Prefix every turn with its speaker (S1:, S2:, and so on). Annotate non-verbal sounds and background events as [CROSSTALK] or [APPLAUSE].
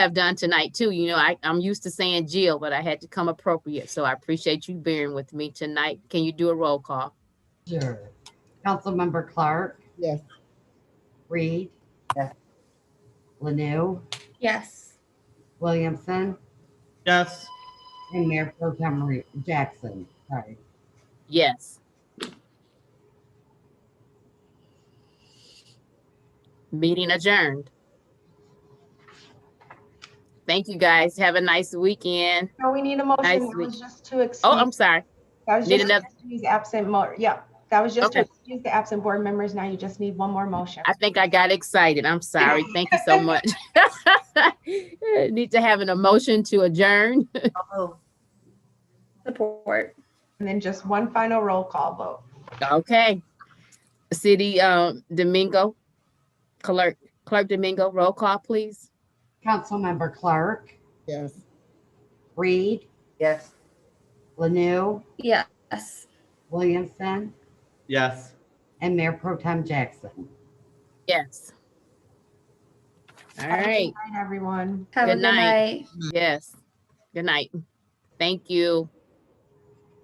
S1: have done tonight too. You know, I, I'm used to saying Jill, but I had to come appropriate. So I appreciate you bearing with me tonight. Can you do a roll call?
S2: Sure.
S3: Councilmember Clark.
S2: Yes.
S3: Reed.
S2: Yes.
S3: Lanu,
S4: Yes.
S3: Williamson,
S5: Yes.
S3: and Mayor Pro Tem Re- Jackson. Sorry.
S1: Yes. Meeting adjourned. Thank you guys. Have a nice weekend.
S6: No, we need a
S1: I
S6: motion. That
S1: see.
S6: was just to excuse.
S1: Oh, I'm sorry.
S6: That was
S1: need
S6: just to
S1: another-
S6: excuse absent mo, yeah. That was just to
S1: Okay.
S6: excuse the absent board members. Now you just need one more motion.
S1: I think I got excited. I'm sorry. Thank you so much. [LAUGHS] Need to have an emotion to adjourn.
S4: Support.
S6: And then just one final roll call vote.
S1: Okay. City, um, Domingo, clerk, clerk Domingo, roll call, please.
S3: Councilmember Clark,
S2: Yes.
S3: Reed,
S2: Yes.
S3: Lanu,
S4: Yes.
S3: Williamson,
S5: Yes.
S3: and Mayor Pro Tem Jackson.
S1: Yes. All right,
S6: Good night, everyone.
S4: Have a
S1: Good
S4: good
S1: night.
S4: night.
S1: yes. Good night. Thank you.